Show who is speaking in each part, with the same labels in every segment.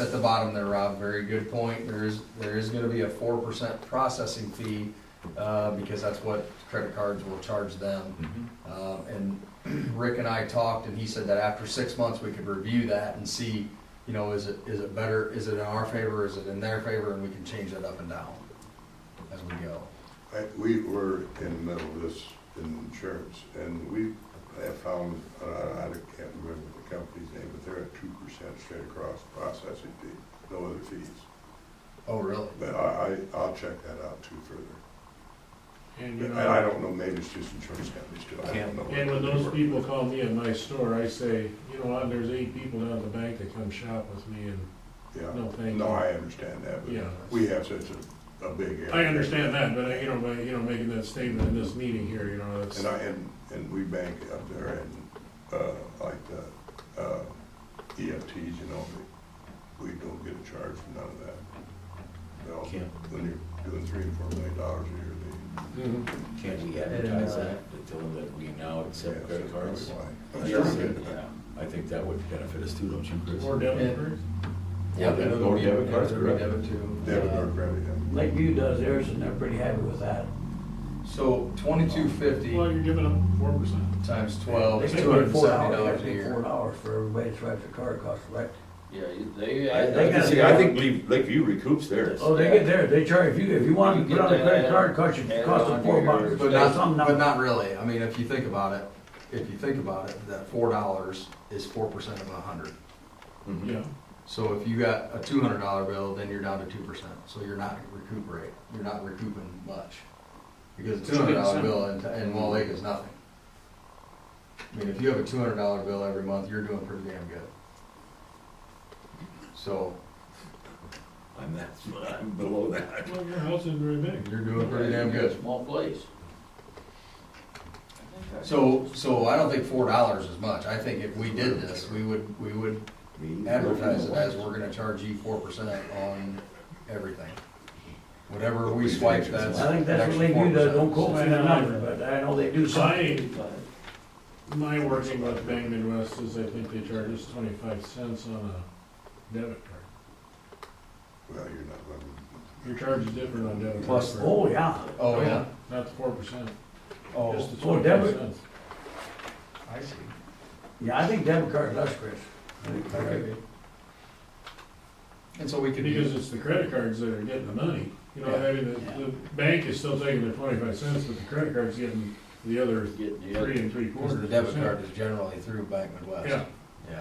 Speaker 1: At the bottom there, Rob, very good point. There is, there is gonna be a four percent processing fee, uh, because that's what credit cards will charge them. Uh, and Rick and I talked, and he said that after six months, we could review that and see, you know, is it, is it better, is it in our favor, is it in their favor, and we can change that up and down as we go.
Speaker 2: I, we were in the middle of this in insurance, and we have found, uh, I can't remember the company's name, but they're at two percent straight across processing fee, no other fees.
Speaker 1: Oh, really?
Speaker 2: But I, I, I'll check that out too further.
Speaker 3: And, you
Speaker 2: And I
Speaker 3: know,
Speaker 2: don't know, maybe it's just insurance companies too, I
Speaker 1: Can't-
Speaker 2: don't know. what
Speaker 3: uh, and when
Speaker 2: they
Speaker 3: those
Speaker 2: work
Speaker 3: people
Speaker 2: with.
Speaker 3: call me at my store, I say, you know what, there's eight people down at the bank that come shop with me and, no,
Speaker 2: Yeah,
Speaker 3: thank
Speaker 2: no,
Speaker 3: you.
Speaker 2: I understand that,
Speaker 3: Yeah.
Speaker 2: but we have such a, a big area.
Speaker 3: I understand that, but, I- you know, by, you know, making that statement in this meeting here, you know, that's,
Speaker 2: And I, and, and we bank up there and, uh, like the, uh, EFTs, you know, we, we don't get a charge for none of that. They all-
Speaker 4: Can't,
Speaker 2: When you're doing three and four million dollars a year, they.
Speaker 3: Mhm.
Speaker 4: can't we advertise that, to tell them that we now accept
Speaker 2: yeah,
Speaker 4: credit
Speaker 2: that's
Speaker 4: cards?
Speaker 2: probably why.
Speaker 4: Yeah, I think that would benefit us too, don't you, Chris?
Speaker 3: or debit cards.
Speaker 4: Yeah, they don't go to debit cards, correct?
Speaker 1: Debit too.
Speaker 2: Debit card credit, yeah.
Speaker 5: Lakeview does theirs and they're pretty happy with that.
Speaker 1: So twenty-two fifty
Speaker 3: Well, you're giving them four percent.
Speaker 1: times twelve
Speaker 5: They
Speaker 1: is
Speaker 5: pay
Speaker 1: Oh, two hundred and
Speaker 5: four
Speaker 1: seventy
Speaker 5: hours,
Speaker 1: dollars a
Speaker 5: they pay four
Speaker 1: year.
Speaker 5: dollars for everybody to swipe their card across, correct?
Speaker 6: Yeah, you- they,
Speaker 5: I-
Speaker 6: I,
Speaker 5: They
Speaker 4: I
Speaker 5: gotta
Speaker 4: can see-
Speaker 5: be-
Speaker 4: I think Lake- Lakeview recoups theirs.
Speaker 5: Oh, they get there, they charge, if you, if you want
Speaker 6: You
Speaker 5: to put
Speaker 6: get
Speaker 5: on a credit
Speaker 6: that,
Speaker 5: card, it costs you,
Speaker 6: add
Speaker 5: costs
Speaker 6: on
Speaker 5: them
Speaker 6: to
Speaker 5: four
Speaker 6: your-
Speaker 5: bucks.
Speaker 1: But
Speaker 5: Some
Speaker 1: not,
Speaker 5: not.
Speaker 1: but not really, I mean, if you think about it, if you think about it, that four dollars is four percent of a hundred.
Speaker 4: Mhm.
Speaker 3: Yeah,
Speaker 1: So if you got a two hundred dollar bill, then you're down to two percent, so you're not recuperate, you're not recouping much. Because a two hundred dollar bill in, in Wall Lake is nothing. I mean, if you have a two hundred dollar bill every month, you're doing pretty damn good. So,
Speaker 4: I'm that, I'm below that.
Speaker 3: well, your house isn't very big.
Speaker 1: you're doing pretty damn good.
Speaker 6: Small place.
Speaker 1: So, so I don't think four dollars is much. I think if we did this, we would, we would
Speaker 4: Me,
Speaker 1: advertise it
Speaker 4: Lakeview.
Speaker 1: as we're gonna charge you four percent on everything. Whatever we swipe, that's.
Speaker 5: I think that's what
Speaker 1: extra
Speaker 5: Lakeview does,
Speaker 1: 4%.
Speaker 5: don't quote me on the number, but I know they do something.
Speaker 3: My, my working with Bank Midwest is I think they charge us twenty-five cents on a debit card.
Speaker 2: Well, you're not running.
Speaker 3: Your charge is different on debit.
Speaker 1: Plus-
Speaker 3: cards.
Speaker 5: Oh, yeah,
Speaker 1: Oh, yeah.
Speaker 3: Not the four percent,
Speaker 1: Oh,
Speaker 3: just the
Speaker 5: oh,
Speaker 3: twenty-five
Speaker 5: debit-
Speaker 3: cents.
Speaker 1: I see.
Speaker 5: yeah, I think debit card less, Chris. I think they're-
Speaker 1: Okay. And so we could
Speaker 3: Because
Speaker 1: use,
Speaker 3: it's the credit cards that are getting the money, you know, I mean, the, the bank is still taking their twenty-five cents, but the credit card's getting the other
Speaker 6: Getting the
Speaker 3: three
Speaker 6: other,
Speaker 3: and three
Speaker 1: because
Speaker 3: quarters.
Speaker 1: the debit
Speaker 3: percent.
Speaker 1: card is generally through Bank Midwest.
Speaker 3: Yeah,
Speaker 1: Yeah.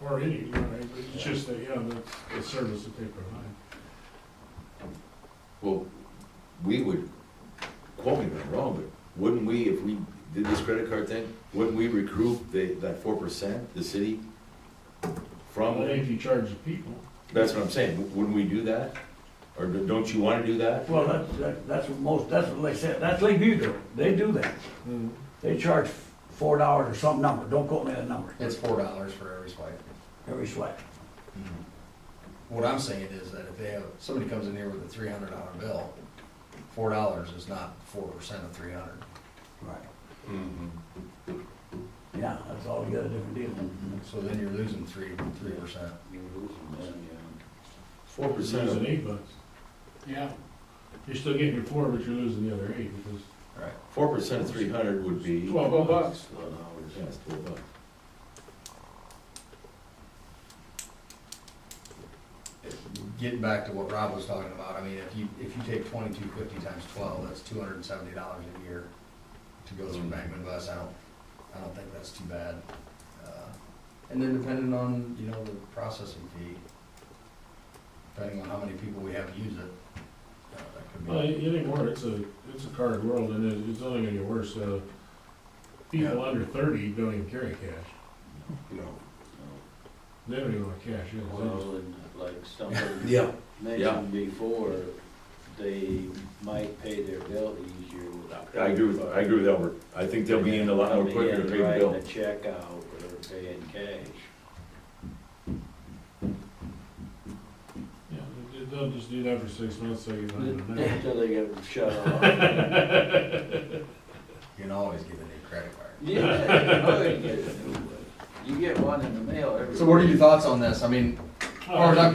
Speaker 3: or any, you know, it's just that, yeah, that's the service that they provide.
Speaker 4: Well, we would, quote me if I'm wrong, but wouldn't we, if we did this credit card thing, wouldn't we recoup the, that four percent, the city? From,
Speaker 3: Well, if you charge the people,
Speaker 4: that's what I'm saying, W- wouldn't we do that? Or d- don't you wanna do that?
Speaker 5: Well, that's, that- that's what most, that's what they said, that's Lakeview do, they do that. They charge four dollars or some number, don't quote me on the number,
Speaker 1: It's four dollars for every swipe.
Speaker 5: every swipe.
Speaker 1: What I'm saying is that if they have, somebody comes in here with a three hundred dollar bill, four dollars is not four percent of three hundred.
Speaker 5: Right. Yeah, that's all, you got a different
Speaker 4: Mm-hmm.
Speaker 5: deal.
Speaker 1: So then you're losing three, three percent.
Speaker 6: you're losing them, yeah.
Speaker 4: Four
Speaker 3: you're
Speaker 4: percent
Speaker 3: losing eight bucks. Yeah. You're still getting your four, but you're losing the other eight, because
Speaker 1: Right.
Speaker 4: Four percent of three hundred would be.
Speaker 3: twelve bucks.
Speaker 6: Twelve hours.
Speaker 4: Yeah, it's twelve bucks.
Speaker 1: Getting back to what Rob was talking about, I mean, if you, if you take twenty-two fifty times twelve, that's two hundred and seventy dollars a year to go through Bankman Bus, I don't, I don't think that's too bad. Uh, And then depending on, you know, the processing fee, depending on how many people we have use it, uh, that could be.
Speaker 3: Well, anymore, it's a, it's a card world, and it- it's only gonna get worse, uh, people
Speaker 2: Yeah.
Speaker 3: under thirty don't even carry cash,
Speaker 2: No,
Speaker 3: they don't even want cash, you know, they just-
Speaker 6: Well, and like somebody
Speaker 4: Yeah. Yeah.
Speaker 6: mentioned before, they might pay their bill easier without.
Speaker 4: I agree with, I agree with Albert. I think they'll be in a lot more
Speaker 6: Coming
Speaker 4: quicker to
Speaker 6: in,
Speaker 4: pay the
Speaker 6: Writing
Speaker 4: bill.
Speaker 6: a check out or paying cash.
Speaker 3: yeah, they- they'll just do that for six months, so you
Speaker 4: Mm-hmm.
Speaker 3: don't know.
Speaker 6: Until they get shut off.
Speaker 1: You can always get a new credit card.
Speaker 6: Yeah, you know, they get a new one. You get one in the mail every.
Speaker 1: So what are
Speaker 6: week.
Speaker 1: your thoughts on this? I mean, as far as I'm